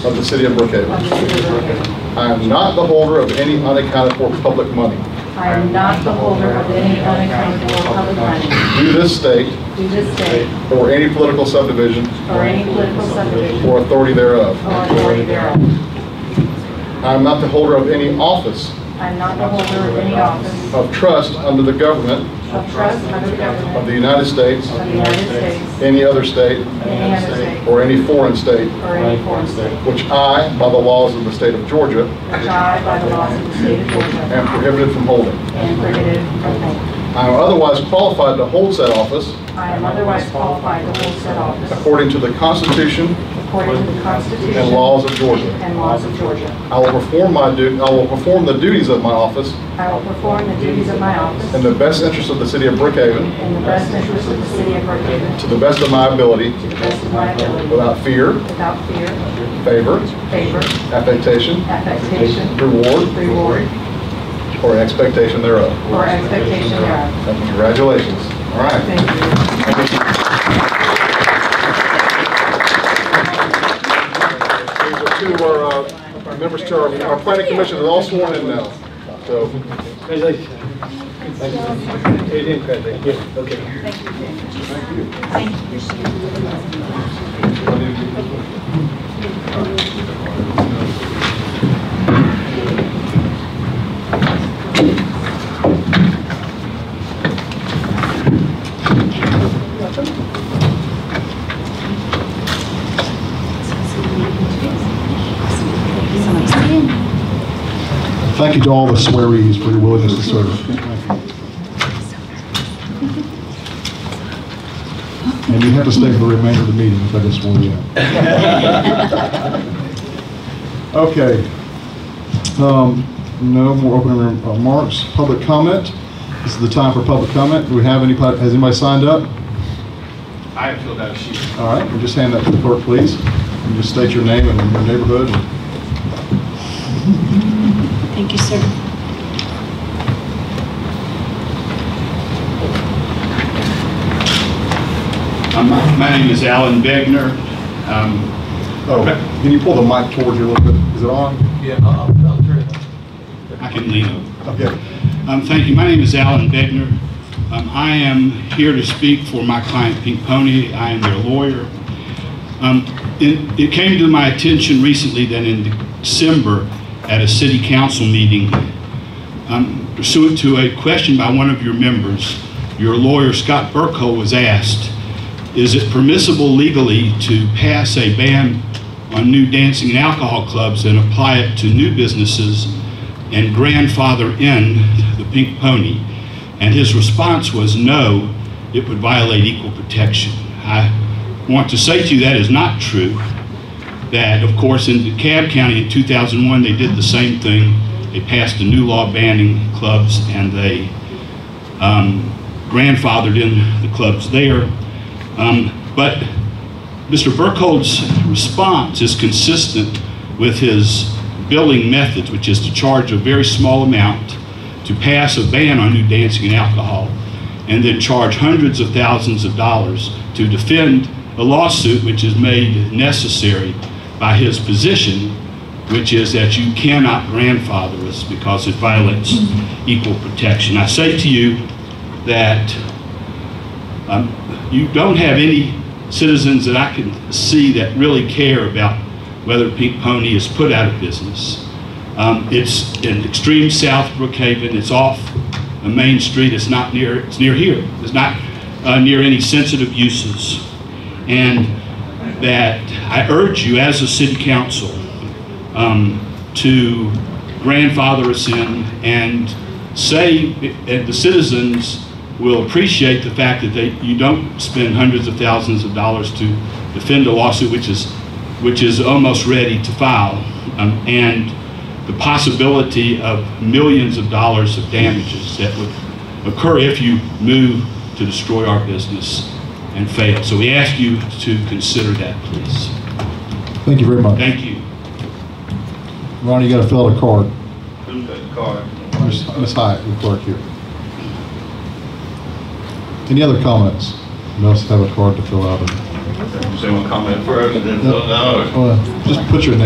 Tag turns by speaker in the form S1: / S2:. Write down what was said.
S1: of the city of Brookhaven. I am not the holder of any unaccounted for public money
S2: I am not the holder of any unaccounted for public money
S1: due this state
S2: due this state
S1: or any political subdivision
S2: or any political subdivision
S1: or authority thereof.
S2: or authority thereof.
S1: I am not the holder of any office
S2: I am not the holder of any office
S1: of trust under the government
S2: of trust under
S1: of the
S2: government
S1: United States,
S2: of the United States,
S1: any other state,
S2: any other state,
S1: or any foreign state,
S2: or any foreign state,
S1: which I, by the laws of the state of Georgia,
S2: which I, by the laws of the state of Georgia,
S1: am prohibited from holding.
S2: am prohibited from holding.
S1: I am otherwise qualified to hold said office
S2: I am otherwise qualified to hold said office
S1: according to the Constitution
S2: according to the Constitution
S1: and laws of Georgia.
S2: and laws of Georgia.
S1: I will perform my duty, I will perform the duties of my office
S2: I will perform the duties of my office
S1: in the best interest of the city of Brookhaven,
S2: in the best interest of the city of Brookhaven
S1: to the best of my ability,
S2: To the best of my ability.
S1: without fear,
S2: Without fear,
S1: favor,
S2: favor,
S1: affectation,
S2: affectation,
S1: reward,
S2: reward,
S1: or expectation thereof.
S2: or expectation thereof.
S1: Congratulations. All right.
S2: Thank you.
S1: These are two of our, uh, our members to our, our planning commission are all sworn in now. So,
S3: Thank you to all the swearees for your willingness to serve. And you have to stay for the remainder of the meeting if I just want you out. Okay. Um, No more opening rem- remarks, public comment. This is the time for public comment. Do we have any, has anybody signed up?
S4: I have filled out a sheet.
S3: All right, we'll just hand that to the clerk, please. And just state your name and your neighborhood.
S5: Thank you, sir.
S4: Um, My name is Alan Begner. Um,
S3: Oh, can you pull the mic towards you a little bit? Is it on?
S6: Yeah, I'll, I'll turn it on.
S4: I can lean over.
S3: Okay.
S4: Um, Thank you. My name is Alan Bednar. Um, I am here to speak for my client Pink Pony. I am their lawyer. Um, It it came to my attention recently that in December, at a city council meeting, um, pursuant to a question by one of your members, your lawyer Scott Burko was asked, is it permissible legally to pass a ban on new dancing and alcohol clubs and apply it to new businesses and grandfather in the Pink Pony? And his response was, no, it would violate equal protection. I want to say to you that is not true that, of course, in DeKalb County in 2001, they did the same thing. They passed a new law banning clubs, and they um, grandfathered in the clubs there. Um, But Mr. Burkhold's response is consistent with his billing methods, which is to charge a very small amount to pass a ban on new dancing and alcohol, and then charge hundreds of thousands of dollars to defend a lawsuit which is made necessary by his position, which is that you cannot grandfather us because it violates equal protection. I say to you that um, you don't have any citizens that I can see that really care about whether Pink Pony is put out of business. Um, It's in extreme South Brookhaven, it's off a main street, it's not near, it's near here, it's not uh, near any sensitive uses. And that I urge you as a city council um, to grandfather us in and say, and the citizens will appreciate the fact that they, you don't spend hundreds of thousands of dollars to defend a lawsuit which is, which is almost ready to file, um, and the possibility of millions of dollars of damages that would occur if you move to destroy our business and fail. So we ask you to consider that, please.
S3: Thank you very much.
S4: Thank you.
S3: Ronnie, you gotta fill out a card.
S4: Card.
S3: Ms. Ms. Hyatt, the clerk here. Any other comments? You must have a card to fill out.
S7: Someone comment first, and then, no,
S3: Well, Just put your name